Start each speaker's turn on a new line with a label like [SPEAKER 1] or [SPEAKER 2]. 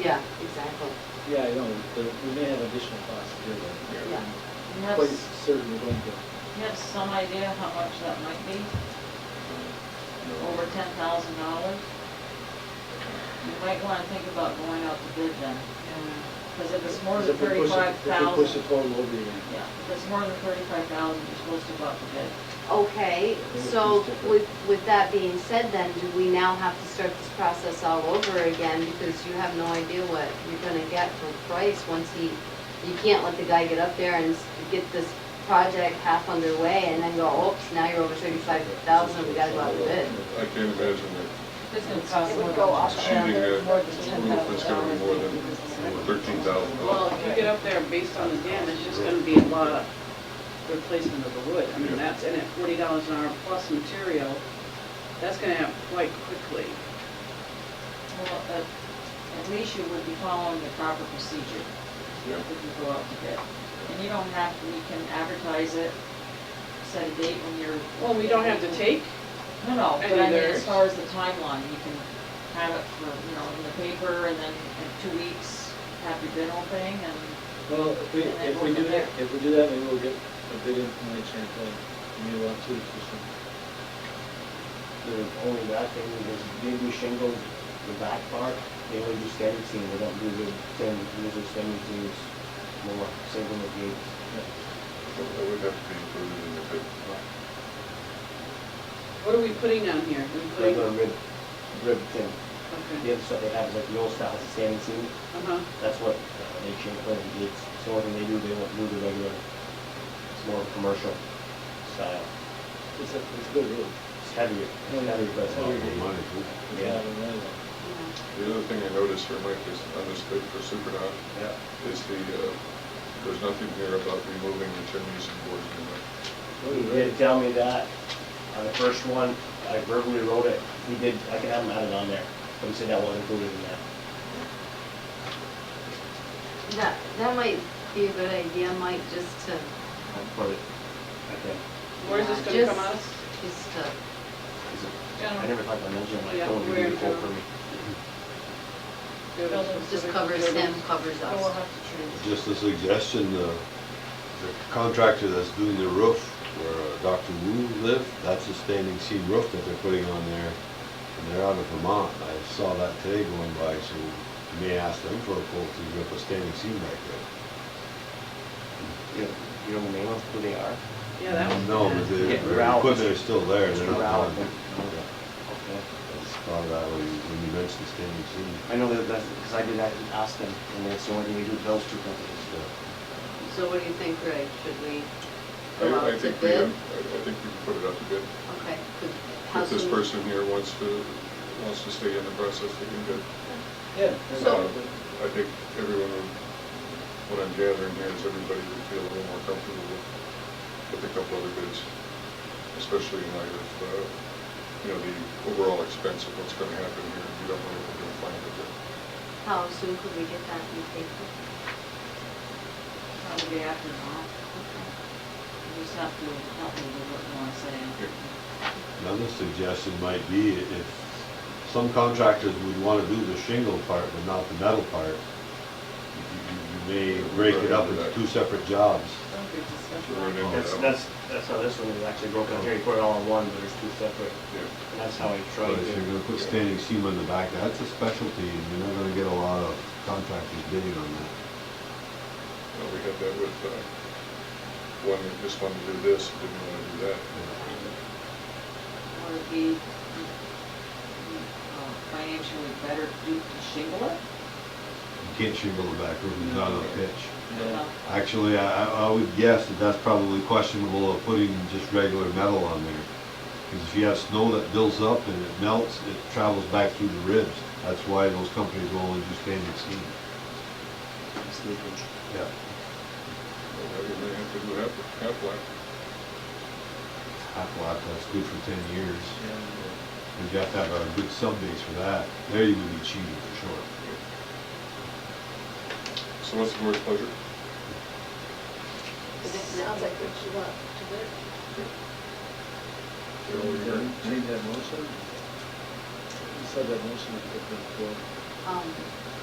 [SPEAKER 1] Yeah, exactly,
[SPEAKER 2] Yeah, I know, but we may have additional costs to do that.
[SPEAKER 1] yeah.
[SPEAKER 3] You
[SPEAKER 2] I'm
[SPEAKER 3] have,
[SPEAKER 2] Quite
[SPEAKER 3] s-
[SPEAKER 2] certain we're going to.
[SPEAKER 3] you have some idea how much that might be? Over ten thousand dollars? You might wanna think about going out to bid then, because if it's more
[SPEAKER 2] Because
[SPEAKER 3] than
[SPEAKER 2] if we push it-
[SPEAKER 3] thirty-five
[SPEAKER 2] If we push the
[SPEAKER 3] thousand,
[SPEAKER 2] total over again.
[SPEAKER 3] yeah, if it's more than thirty-five thousand, you're supposed to go out to bid.
[SPEAKER 1] Okay, so with, with that being said then, do we now have to start this process all over again? Because you have no idea what you're gonna get for price once he, you can't let the guy get up there and s- get this project half underway and then go, oops, now you're over thirty-five thousand, we gotta go out to bid.
[SPEAKER 4] I can't imagine
[SPEAKER 3] It's gonna
[SPEAKER 5] It would go up
[SPEAKER 4] that
[SPEAKER 5] and
[SPEAKER 4] achieving
[SPEAKER 5] more
[SPEAKER 4] a
[SPEAKER 5] than
[SPEAKER 4] roof is gonna be more than
[SPEAKER 5] $10,000.
[SPEAKER 4] thirteen thousand
[SPEAKER 6] Well,
[SPEAKER 4] dollars.
[SPEAKER 6] if you get up there based on the dam, it's just gonna be a lot of replacement of the wood. I mean, that's, and at forty dollars an hour plus material, that's gonna happen quite quickly.
[SPEAKER 3] Well, at, at least you would be following the proper procedure
[SPEAKER 4] Yeah.
[SPEAKER 3] if you go out to bid. And you don't have, we can advertise it, set a date when you're.
[SPEAKER 6] Well, we don't have to take,
[SPEAKER 3] No, no, but I
[SPEAKER 6] Any
[SPEAKER 3] mean,
[SPEAKER 6] there.
[SPEAKER 3] as far as the timeline, you can have it for, you know, in the paper and then in two weeks, have your bid opening and,
[SPEAKER 2] Well, if we,
[SPEAKER 3] And then
[SPEAKER 2] if
[SPEAKER 3] go
[SPEAKER 2] we do
[SPEAKER 3] from
[SPEAKER 2] that, if we do that, maybe we'll get a bid in from Lake Champlain, maybe we'll have two efficient.
[SPEAKER 7] The only bad thing is they do shingle the back part, they only do standard seam, they don't do the thin, these are standard seams, more single with gates.
[SPEAKER 4] That would have to be included in the bid.
[SPEAKER 6] what are we putting on here? We putting,
[SPEAKER 7] Regular rib, rib thin.
[SPEAKER 6] okay,
[SPEAKER 7] The other stuff they have is like the old style, it's standard seam,
[SPEAKER 6] uh-huh,
[SPEAKER 7] that's what uh, they shingle the gates. So when they do, they won't do the regular, it's more commercial style.
[SPEAKER 2] It's a, it's a good roof.
[SPEAKER 7] It's heavier, it's heavier, but it's not.
[SPEAKER 2] Yeah,
[SPEAKER 7] Yeah.
[SPEAKER 2] I don't know.
[SPEAKER 4] The other thing I noticed here, Mike, is on this bid for Supernaut,
[SPEAKER 7] Yeah.
[SPEAKER 4] is the, uh, there's nothing here about removing the chimneys and boards. and that.
[SPEAKER 7] He did tell me that on the first one, I verbally wrote it, he did, I can have him added on there, but he said that wasn't included in that.
[SPEAKER 1] That, that might be a good idea, Mike, just to,
[SPEAKER 7] I put it, I
[SPEAKER 6] where's this gonna come out of?
[SPEAKER 1] just to,
[SPEAKER 7] think, is it- I
[SPEAKER 6] General,
[SPEAKER 7] never thought about mentioning, like,
[SPEAKER 6] Yeah,
[SPEAKER 7] don't
[SPEAKER 6] we're
[SPEAKER 7] do the quote
[SPEAKER 6] general.
[SPEAKER 7] for me.
[SPEAKER 6] building
[SPEAKER 1] just
[SPEAKER 6] specific
[SPEAKER 1] covers him,
[SPEAKER 6] buildings.
[SPEAKER 1] covers
[SPEAKER 3] so we'll
[SPEAKER 1] us.
[SPEAKER 3] have to choose.
[SPEAKER 8] Just a suggestion, uh, the contractor that's doing the roof where uh, Dr. Wu lived, that's a standing seam roof that they're putting on there. And they're out of Vermont. I saw that today going by, so you may ask them for a quote to rip a standing seam back there.
[SPEAKER 7] You don't- you don't name them, who they are?
[SPEAKER 6] Yeah, that was.
[SPEAKER 8] No, but the
[SPEAKER 7] Yeah,
[SPEAKER 8] the
[SPEAKER 7] Ralph.
[SPEAKER 8] equipment is still there.
[SPEAKER 7] Mr.
[SPEAKER 8] they're not
[SPEAKER 7] Ralph.
[SPEAKER 8] done.
[SPEAKER 7] Okay. Okay.
[SPEAKER 8] Yeah, I just thought of that when you- when you mentioned standing seam.
[SPEAKER 7] I know that, that's, because I did that, ask them, and that's the only thing we do, those two companies.
[SPEAKER 8] Yeah.
[SPEAKER 1] So what do you think, Greg? Should we go out
[SPEAKER 4] I, I
[SPEAKER 1] to
[SPEAKER 4] think we,
[SPEAKER 1] bid?
[SPEAKER 4] have- I I think we can put it out to bid.
[SPEAKER 1] Okay. could- how
[SPEAKER 4] If this
[SPEAKER 1] soon-
[SPEAKER 4] person here wants to, wants to stay in the process, they can bid.
[SPEAKER 2] Yeah.
[SPEAKER 4] Uh, I think everyone, would- what I'm gathering here is everybody would feel a little more comfortable with, with a couple other bids, especially in light of, uh, you know, the overall expense of what's gonna happen here, you don't know what we're gonna find out there.
[SPEAKER 1] How soon could we get that in the paper?
[SPEAKER 3] Probably after now. You just have to help me with what you wanna say.
[SPEAKER 8] Another suggestion might be if some contractors would want to do the shingle part but not the metal part, you- you you may break it up into two separate jobs.
[SPEAKER 6] Don't be disgusting.
[SPEAKER 4] So we're gonna-
[SPEAKER 7] That's, that's, that's how this one is actually broken, here, you put it all in one, but there's two separate,
[SPEAKER 4] Yeah.
[SPEAKER 7] and that's how I
[SPEAKER 8] But
[SPEAKER 7] tried to.
[SPEAKER 8] if you're gonna put standing seam on the back, that's a specialty and you're not gonna get a lot of contractors bidding on that.
[SPEAKER 4] Well, we had that with, uh, one that just wanted to do this, didn't wanna do that.
[SPEAKER 3] Would it be uh, financially better to do to shingle it?
[SPEAKER 8] You can't shingle the back roof without a pitch.
[SPEAKER 2] Yeah.
[SPEAKER 8] Actually, I, I- I would guess that that's probably questionable of putting just regular metal on there. Because if you have snow that builds up and it melts, it travels back through the ribs. That's why those companies will only do standing seam.
[SPEAKER 7] Sneakers.
[SPEAKER 8] Yeah.
[SPEAKER 4] Well, that would may have to do half, half black.
[SPEAKER 8] Half lot, that's good for ten years.
[SPEAKER 2] Yeah.
[SPEAKER 8] But you have to have a good sub base for that. There you would be cheating for sure.
[SPEAKER 4] So what's the board's pleasure?
[SPEAKER 5] Sounds like what you want to do.
[SPEAKER 2] Do we need that motion? You said that motion, if it was,
[SPEAKER 1] Um,